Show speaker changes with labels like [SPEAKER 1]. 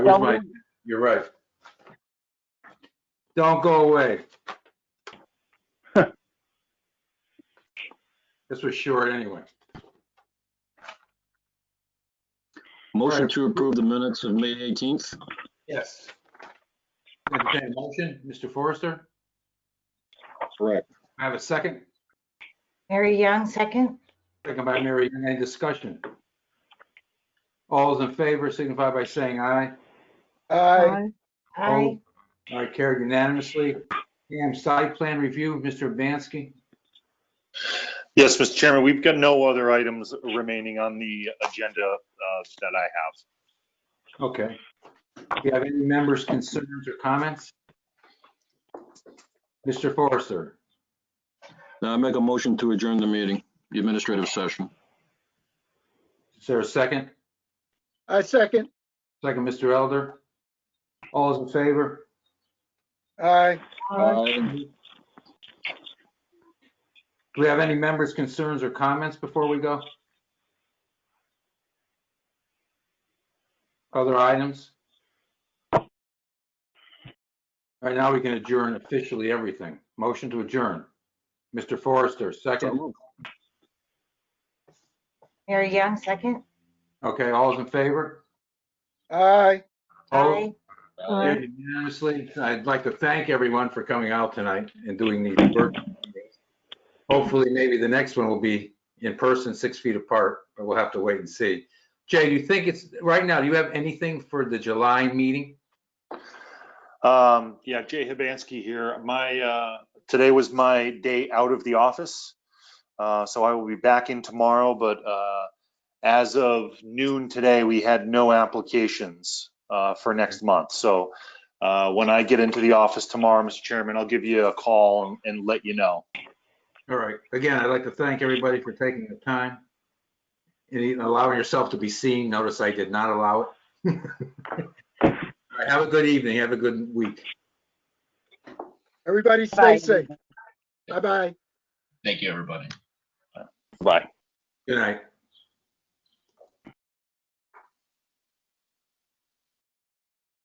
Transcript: [SPEAKER 1] Where's
[SPEAKER 2] Don't
[SPEAKER 1] my,
[SPEAKER 2] move.
[SPEAKER 1] you're right. Don't go away. This was short anyway.
[SPEAKER 3] Motion
[SPEAKER 1] Right.
[SPEAKER 3] to approve the minutes of May 18th.
[SPEAKER 1] Yes. Entertained motion, Mr. Forrester?
[SPEAKER 3] Correct.
[SPEAKER 1] I have a second,
[SPEAKER 2] Mary Young, second.
[SPEAKER 1] second by Mary Young. Any discussion? All those in favor signify by saying aye.
[SPEAKER 4] Aye.
[SPEAKER 2] Aye.
[SPEAKER 1] All right, carried unanimously. And site plan review, Mr. Bansky?
[SPEAKER 5] Yes, Mr. Chairman, we've got no other items remaining on the agenda uh, that I have.
[SPEAKER 1] Okay. Do you have any members' concerns or comments? Mr. Forrester,
[SPEAKER 3] Now I make a motion to adjourn the meeting, the administrative session.
[SPEAKER 1] is there a second?
[SPEAKER 4] I second.
[SPEAKER 1] Second, Mr. Elder? All those in favor?
[SPEAKER 4] Aye.
[SPEAKER 3] Aye.
[SPEAKER 1] Do we have any members' concerns or comments before we go? Other items? All right, now we can adjourn officially everything. Motion to adjourn. Mr. Forrester,
[SPEAKER 3] So
[SPEAKER 1] second.
[SPEAKER 3] moved.
[SPEAKER 2] Mary Young, second.
[SPEAKER 1] Okay, all those in favor?
[SPEAKER 4] Aye.
[SPEAKER 1] All-
[SPEAKER 2] Aye.
[SPEAKER 1] Carried Unanimously, I'd like to thank everyone for coming out tonight and doing these work. Hopefully, maybe the next one will be in person, six feet apart, but we'll have to wait and see. Jay, do you think it's, right now, do you have anything for the July meeting?
[SPEAKER 5] Um, yeah, Jay Hibansky here. My, uh, today was my day out of the office. Uh, so I will be back in tomorrow, but, uh, as of noon today, we had no applications, uh, for next month. So, uh, when I get into the office tomorrow, Mr. Chairman, I'll give you a call and, and let you know.
[SPEAKER 1] All right, again, I'd like to thank everybody for taking the time and even allowing yourself to be seen. Notice I did not allow it. All right, Have a good evening, have a good week.
[SPEAKER 4] Everybody
[SPEAKER 2] Bye.
[SPEAKER 4] stay safe. Bye-bye.
[SPEAKER 6] Thank you, everybody.
[SPEAKER 5] Bye.
[SPEAKER 1] Good night.